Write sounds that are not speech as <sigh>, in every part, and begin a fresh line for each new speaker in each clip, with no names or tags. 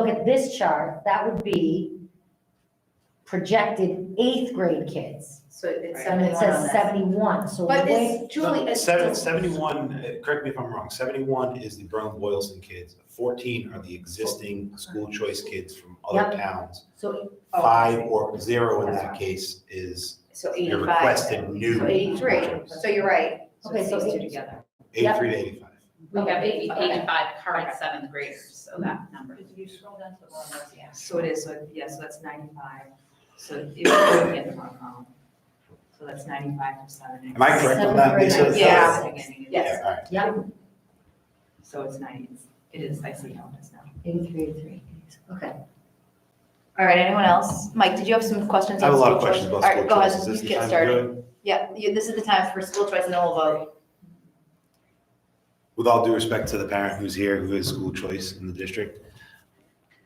look at this chart, that would be projected eighth grade kids.
So
And
it's seventy-one
it
on
says
that.
seventy-one, so
But
we're
it's Julie,
uh,
it's
Seven-
still-
71, uh, correct me if I'm wrong, 71 is the Berlin-Boylston kids. 14 are the existing school choice kids from other towns.
so,
Oh,
Five or zero in that case is
So
your
eighty-five.
requested new.
So eighty-three,
school choice.
so you're right.
Okay,
it's
so
these two
eight-
together.
83 to 85.
We have eighty-
Okay.
85 current
Okay. Mm-hmm.
seventh graders, so that number.
If you scroll down to the bottom, that's- yeah.
So it is, so, yeah, so that's ninety-five, so if you look at the wrong column, so that's ninety-five from seven.
Am I correct on that, Lisa?
Seven,
Yeah.
Yeah,
Yes,
all right.
yeah,
so it's ninety, It's- it is, I see how it is now.
eighty-three, three, okay.
All right, anyone else? Mike, did you have some questions?
I have
on
a lot of
school
questions
choice?
about school
All right,
choice. Is
go
this
ahead, you
the time
get
to
started.
do it?
Yeah, you- this is the time for school choice and then we'll vote.
With all due respect to the parent who's here, who has school choice in the district,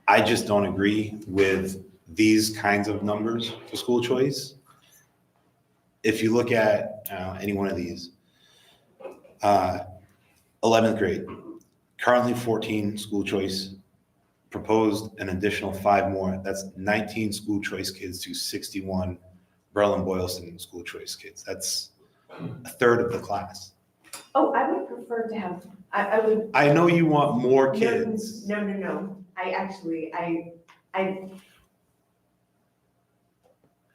I just don't agree with these kinds of numbers for school choice. If you look at uh, any one of these, uh, 11th grade, currently 14 school choice, proposed an additional five more. That's 19 school choice kids to 61 Berlin-Boylston school choice kids. That's a third of the class.
Oh, I would prefer to have, I, I would.
I know you want more
no,
kids.
No, no, no, I actually, I, I.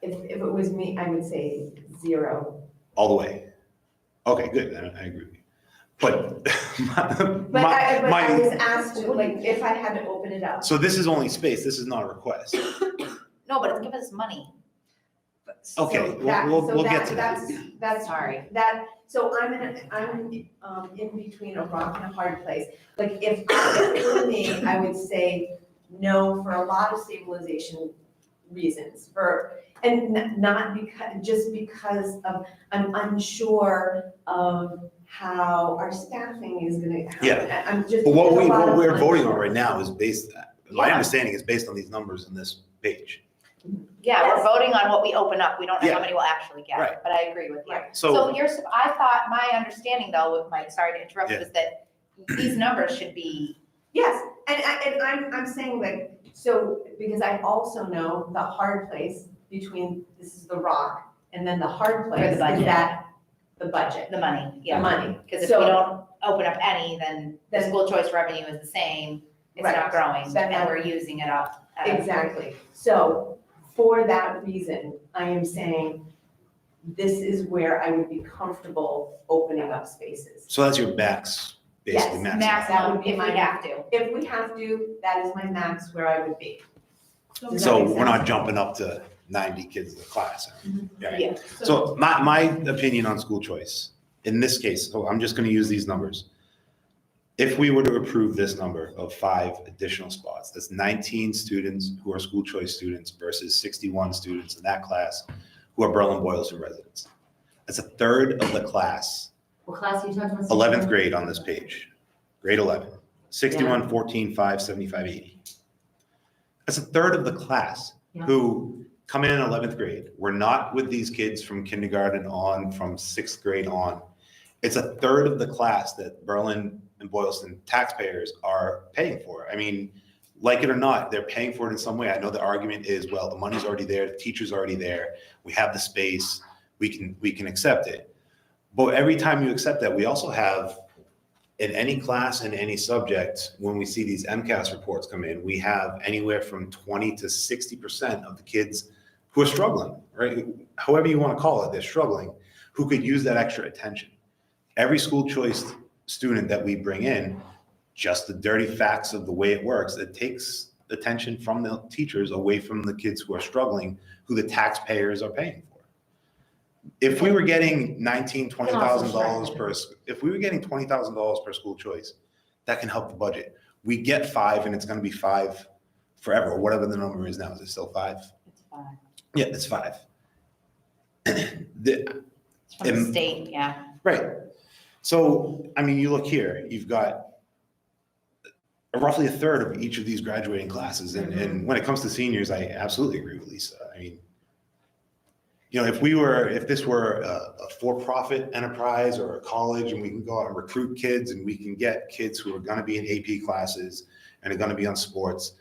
If, if it was me, I would say zero.
all the way. Okay, good. I, I agree with you. But <laughs> my,
But
my,
I, but I was asked to, like, if I had to open it up.
so this is only space. This is not a request.
No, but it's giving us money.
Okay,
So
we'll,
that-
we'll,
so
we'll get to that.
That's, that's
Sorry.
That, so I'm in, a- I'm, um, in between a rock and a hard place. Like, if <coughs> it were me, I would say no for a lot of stabilization reasons, for, and n- not because, just because of, I'm unsure of how our staffing is gonna happen.
Yeah.
I- I'm just.
But what
there's
we,
a lot
what
of
we're voting on
unsure.
right now is based, my
Yeah.
understanding is based on these numbers in this page.
Yeah, we're
Yes.
voting on what we open up. We don't know
Yeah.
how many we'll actually
Right.
get, but I agree with you.
Right.
So
So,
here's, I thought, my understanding though, with Mike, sorry to interrupt,
Yeah.
was that these numbers should be,
Yes, and I, and I'm, I'm saying like, so, because I also know the hard place between, this is the rock, and then the hard place is
budget.
that, the budget,
the money,
the
yeah.
money.
Because if we
So-
don't open up any, then the
Then-
school choice revenue is the same, it's
Right.
not growing,
That-
and we're using it up. at a-
Exactly, so for that reason, I am saying this is where I would be comfortable opening up spaces.
so that's your max, basically
Yes,
max.
Max
That
out
would
if
be
we
my-
have to.
If we have to, that is my max where I would be. Does that
So
make
we're
sense?
not jumping up to ninety kids in the class. Yeah.
Yeah.
So my, my opinion on school choice, in this case, so I'm just gonna use these numbers. If we were to approve this number of five additional spots, that's nineteen students who are school choice students versus sixty-one students in that class who are Berlin-Boylston residents. That's a third of the class,
What class are you talking about?
eleventh grade on this page, grade eleven. Sixty-one, fourteen, five, seventy-five, eighty. That's a third of the class
Yeah.
who come in in eleventh grade. We're not with these kids from kindergarten on, from sixth grade on. It's a third of the class that Berlin and Boylston taxpayers are paying for. I mean, like it or not, they're paying for it in some way. I know the argument is, well, the money's already there, the teacher's already there, we have the space, we can, we can accept it. But every time you accept that, we also have in any class and any subject, when we see these MCAS reports come in, we have anywhere from 20 to 60% of the kids who are struggling, right? However you want to call it, they're struggling, who could use that extra attention. Every school choice student that we bring in, just the dirty facts of the way it works, it takes attention from the teachers away from the kids who are struggling, who the taxpayers are paying for. If we were getting 19, 20 thousand dollars per per sc- if we were getting twenty thousand dollars per school choice, that can help the budget. We get five and it's gonna be five forever, or whatever the number is now. Is it still five?
It's fine.
Yeah, it's five. <clears throat> The-
It's from
Um,
the state, yeah.
right. So, I mean, you look here, you've got roughly a third of each of these graduating classes. And, and when it comes to seniors, I absolutely agree with Lisa. I mean, you know, if we were, if this were a, a for-profit enterprise or a college and we can go out and recruit kids and we can get kids who are gonna be in AP classes and are gonna be on sports,